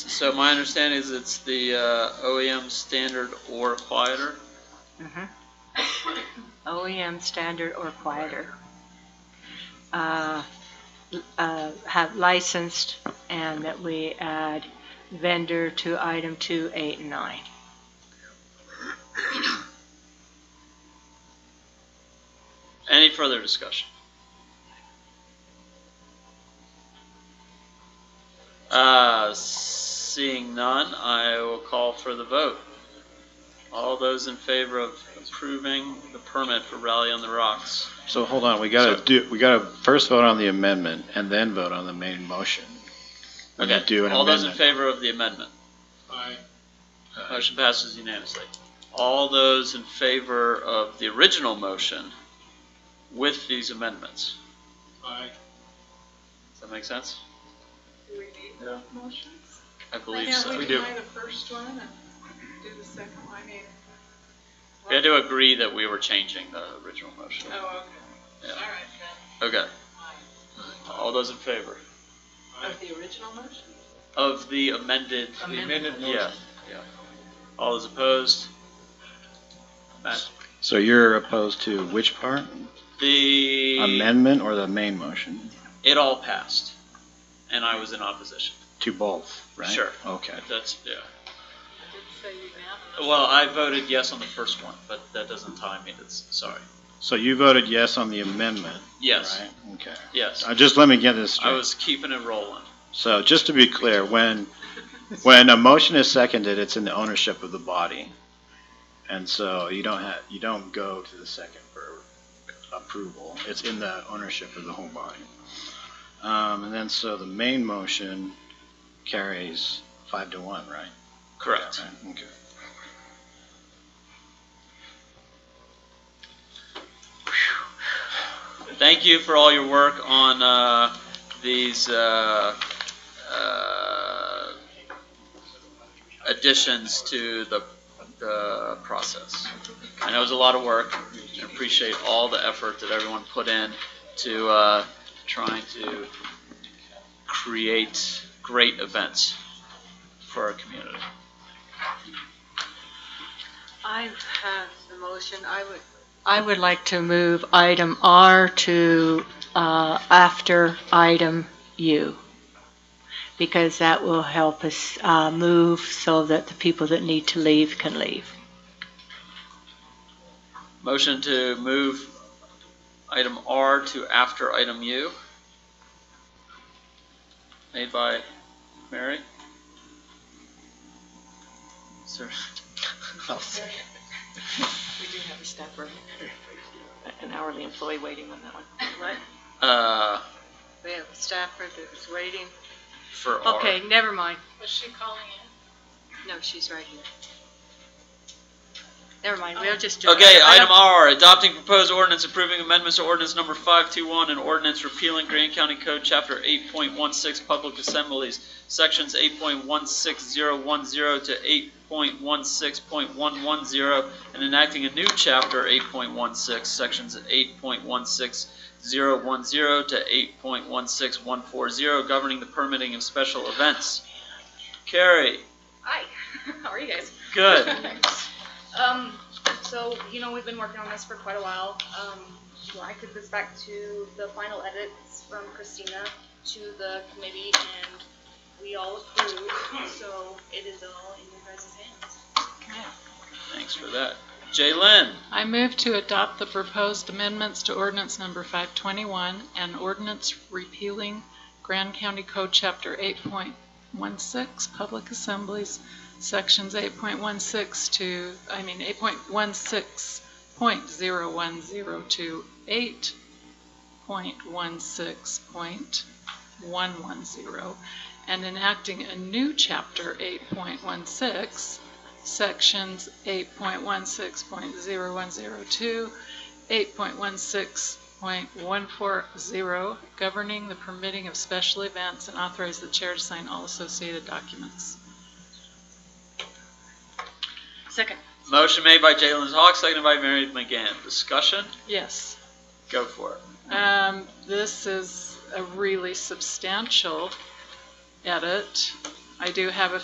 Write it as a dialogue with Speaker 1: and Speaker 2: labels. Speaker 1: So my understanding is it's the uh, OEM standard or quieter.
Speaker 2: Mhm. Mm-hmm. OEM E standard or quieter. Uh, uh, Have licensed, and that we add vendor to item two, eight, and nine.
Speaker 1: Any further discussion? Uh, seeing none, I will call for the vote. All those in favor of approving the permit for Rally on the Rocks?
Speaker 3: So hold on, we gotta
Speaker 1: So-
Speaker 3: do, we gotta first vote on the amendment and then vote on the main motion. When you
Speaker 1: Okay,
Speaker 3: do an
Speaker 1: all those in
Speaker 3: amendment. Uh,
Speaker 1: favor of the amendment?
Speaker 4: Aye.
Speaker 1: Motion passes unanimously. All those in favor of the original motion with these amendments?
Speaker 4: Aye.
Speaker 1: Does that make sense?
Speaker 5: Do we need the motions?
Speaker 1: I believe
Speaker 5: Why
Speaker 1: so.
Speaker 5: can't
Speaker 1: We
Speaker 5: we
Speaker 1: do
Speaker 5: deny the first one and do the second one? I mean.
Speaker 1: had to agree that we were changing the original motion.
Speaker 5: Oh, okay.
Speaker 1: Yeah.
Speaker 5: All right,
Speaker 1: Okay,
Speaker 5: then.
Speaker 1: all those in favor
Speaker 5: Of the original motion?
Speaker 1: of the amended,
Speaker 4: The amended
Speaker 1: yeah,
Speaker 4: motion.
Speaker 1: yeah. All those opposed? Matt?
Speaker 3: So you're opposed to which part?
Speaker 1: The,
Speaker 3: Amendment or the main motion?
Speaker 1: it all passed, and I was in opposition.
Speaker 3: To both, right?
Speaker 1: Sure.
Speaker 3: Okay.
Speaker 1: That's, yeah.
Speaker 5: I did say unanimous.
Speaker 1: Well, I voted yes on the first one, but that doesn't tie me, that's, sorry.
Speaker 3: So you voted yes on the amendment,
Speaker 1: Yes,
Speaker 3: right? Okay.
Speaker 1: yes.
Speaker 3: Uh, Just let me get this
Speaker 1: I
Speaker 3: straight.
Speaker 1: was keeping it rolling.
Speaker 3: So just to be clear, when, when a motion is seconded, it's in the ownership of the body. And so you don't have, you don't go to the second for approval. It's in the ownership of the whole body. Um, and then so the main motion carries five to one, right?
Speaker 1: Correct.
Speaker 3: Yeah, right, Okay.
Speaker 1: Thank you for all your work on uh, these uh, uh, additions to the, the process. I know it was a lot of work. and appreciate all the effort that everyone put in to uh, trying to create great events for our community.
Speaker 2: I have the motion, I would. I would like to move item R to, uh, after item U. Because that will help us, uh, move so that the people that need to leave can leave.
Speaker 1: Motion to move item R to after item U. Made by Mary. Is there- Oh,
Speaker 5: We do have a staffer, an hourly employee waiting on that one.
Speaker 2: What?
Speaker 1: Uh,
Speaker 2: We have a staffer that was waiting.
Speaker 1: for R.
Speaker 2: Okay, never mind.
Speaker 5: Was she calling in?
Speaker 2: No, she's right here. Never mind, we'll just do.
Speaker 1: Okay, item R, adopting proposed ordinance approving amendments to ordinance number 521 and ordinance repealing Grand County Code, Chapter 8.16, Public Assemblies, Sections 8.16010 to 8.16.110, and enacting a new Chapter 8.16, Sections 8.16010 to 8.16140, governing the permitting of special events. Carrie,
Speaker 6: Hi, how are you guys?
Speaker 1: good.
Speaker 6: Um, so, you know, we've been working on this for quite a while. Um, well, I took this back to the final edits from Christina to the committee and we all approved, so it is all in your guys' hands.
Speaker 1: Thanks for that. Jaylen?
Speaker 7: I move to adopt the proposed amendments to ordinance number 521 and ordinance repealing Grand County Code Chapter 8.16, Public Assemblies, Sections 8.16 to, I mean, 8.16.010 to 8.16.110, and enacting a new Chapter 8.16, sections 8.16.0102, 8.16.140, governing the permitting of special events, and authorize the chair to sign all associated documents.
Speaker 2: Second.
Speaker 1: Motion made by Jalen Hawk, seconded by Mary McGann. Discussion?
Speaker 7: Yes.
Speaker 1: Go for it.
Speaker 7: Um, this is a really substantial edit. I do have a